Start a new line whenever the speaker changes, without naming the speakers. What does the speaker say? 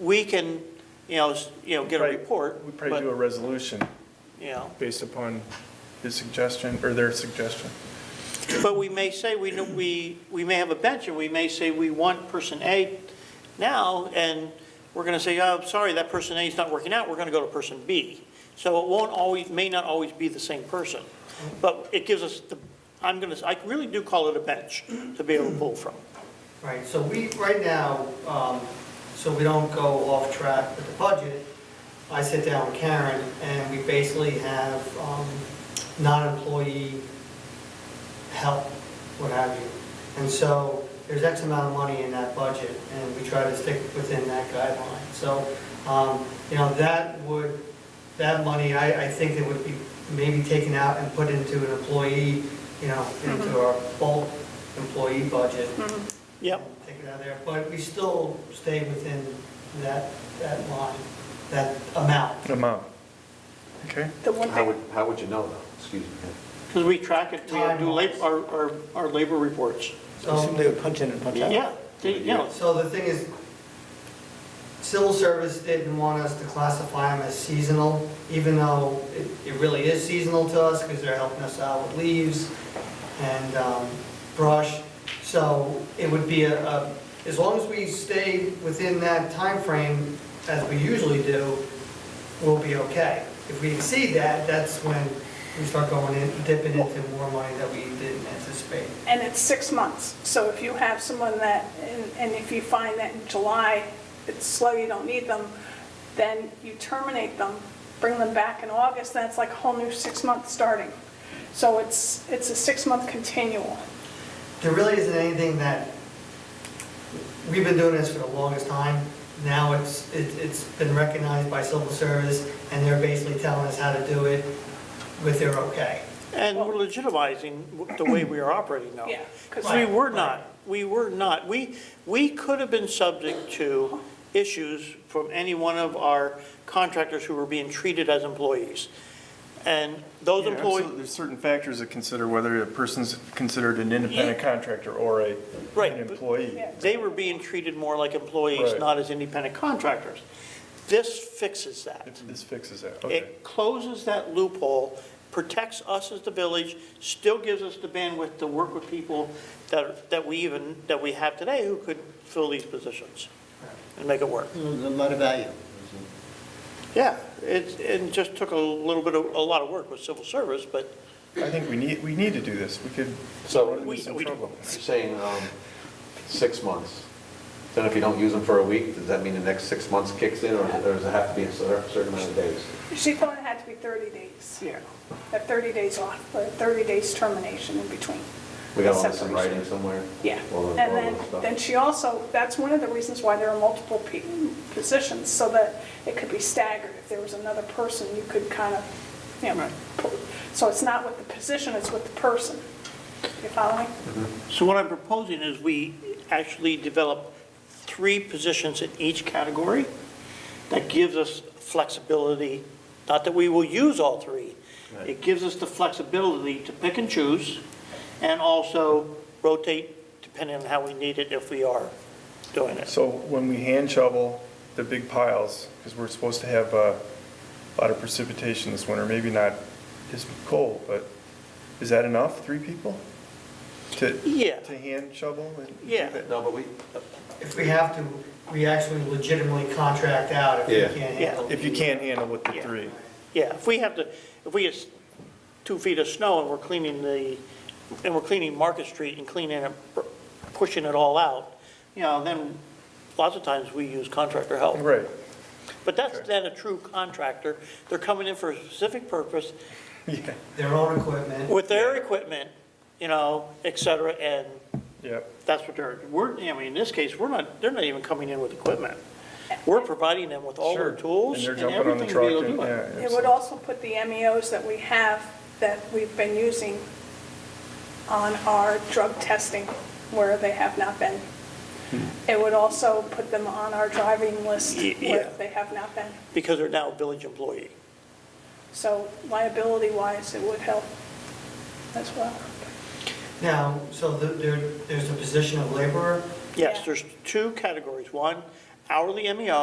we can, you know, s- you know, get a
Right.
report,
We probably do a
but,
resolution
you know.
based upon his suggestion or their suggestion.
But we may say, we, know- we, we may have a bench, and we may say, we want person A now, and we're gonna say, oh, sorry, that person A is not working out, we're gonna go to person B. So it won't always, may not always be the same person, but it gives us the, I'm gonna, I really do call it a bench to be able to pull from.
Right, so we, right now, um, so we don't go off track with the budget, I sit down with Karen, and we basically have um, non-employee help, what have you. And so there's X amount of money in that budget, and we try to stick within that guideline. So, um, you know, that would, that money, I, I think it would be maybe taken out and put into an employee, you know, into our bulk employee budget.
Yep,
Take it out of there, but we still stay within that, that line, that amount.
Amount. Okay?
The one
How would,
thing,
how would you know though? Excuse me.
because we track it, we do lab, our, our, our labor reports.
So-
would punch in and punch
Yeah, they- you know,
So the thing is, civil service didn't want us to classify them as seasonal, even though it, it really is seasonal to us because they're helping us out with leaves and um, brush. So it would be a, a- as long as we stay within that time frame as we usually do, we'll be okay. If we exceed that, that's when we start going in, dipping into more money that we didn't anticipate.
and it's six months, so if you have someone that, and- and if you find that in July, it's slow, you don't need them, then you terminate them, bring them back in August, that's like a whole new six months starting. So it's, it's a six-month continual.
there really isn't anything that, we've been doing this for the longest time. Now it's, it- it's been recognized by civil service, and they're basically telling us how to do it with their okay.
and we're legitimizing the way we are operating now.
Yeah, 'cause-
We were not, we were not, we, we could have been subject to issues from any one of our contractors who were being treated as employees. And those
Yeah, absolutely.
employees,
There's certain factors that consider whether a person's considered an independent contractor or a,
Right,
an
but-
employee.
Yeah.
they were being treated more like employees,
Right.
not as independent contractors. This fixes that.
If This fixes that, okay.
It closes that loophole, protects us as the village, still gives us the bandwidth to work with people that, that we even, that we have today who could fill these positions and make it work.
Mm.
A lot of value.
Yeah, it, it just took a little bit of, a lot of work with civil service, but
I think we need, we need to do this. We could
So-
run into
We-
some
we-
trouble.
You're saying, um, six months. Then if you don't use them for a week, does that mean the next six months kicks in or or does it have to be a cer- certain amount of days?
She thought it had to be 30 days,
yeah.
that 30 days off, but 30 days termination in between.
We got all this in
Separation.
writing somewhere?
Yeah,
All the-
and
all
then,
the stuff.
then she also, that's one of the reasons why there are multiple pe- positions, so that it could be staggered. If there was another person, you could kind of, you know, pu- so it's not with the position, it's with the person. You following?
So what I'm proposing is we actually develop three positions in each category. That gives us flexibility, not that we will use all three. It gives us the flexibility to pick and choose and also rotate depending on how we need it if we are doing it.
So when we hand shovel the big piles, because we're supposed to have uh, a lot of precipitation this winter, maybe not as cold, but is that enough, three people? To,
Yeah.
to hand shovel? and do
Yeah.
that?
No, but we,
If we have to, we actually legitimately contract out if
Yeah.
we can't handle.
If you can't handle with the
Yeah.
three.
Yeah, if we have to, if we get two feet of snow and we're cleaning the, and we're cleaning Market Street and cleaning it, pushing it all out, you know, then lots of times we use contractor help.
Right.
But that's
Okay.
then a true contractor. They're coming in for a specific purpose
Yeah,
Their own equipment.
with their equipment, you know, et cetera, and
yep.
that's what they're, we're, I mean, in this case, we're not, they're not even coming in with equipment. We're providing them with all
Sure.
their tools
they're
and
jumping on the
everything to be able to
truck
do it.
and- yeah,
It would
absolutely.
also put the MEOs that we have, that we've been using on our drug testing where they have not been. It would also put them on our driving list
Ye- yeah.
where they have not been.
Because they're now a village employee.
So liability-wise, it would help as well.
Now, so the- there, there's a position of laborer,
Yes,
Yeah.
there's two categories. One, hourly E MEO,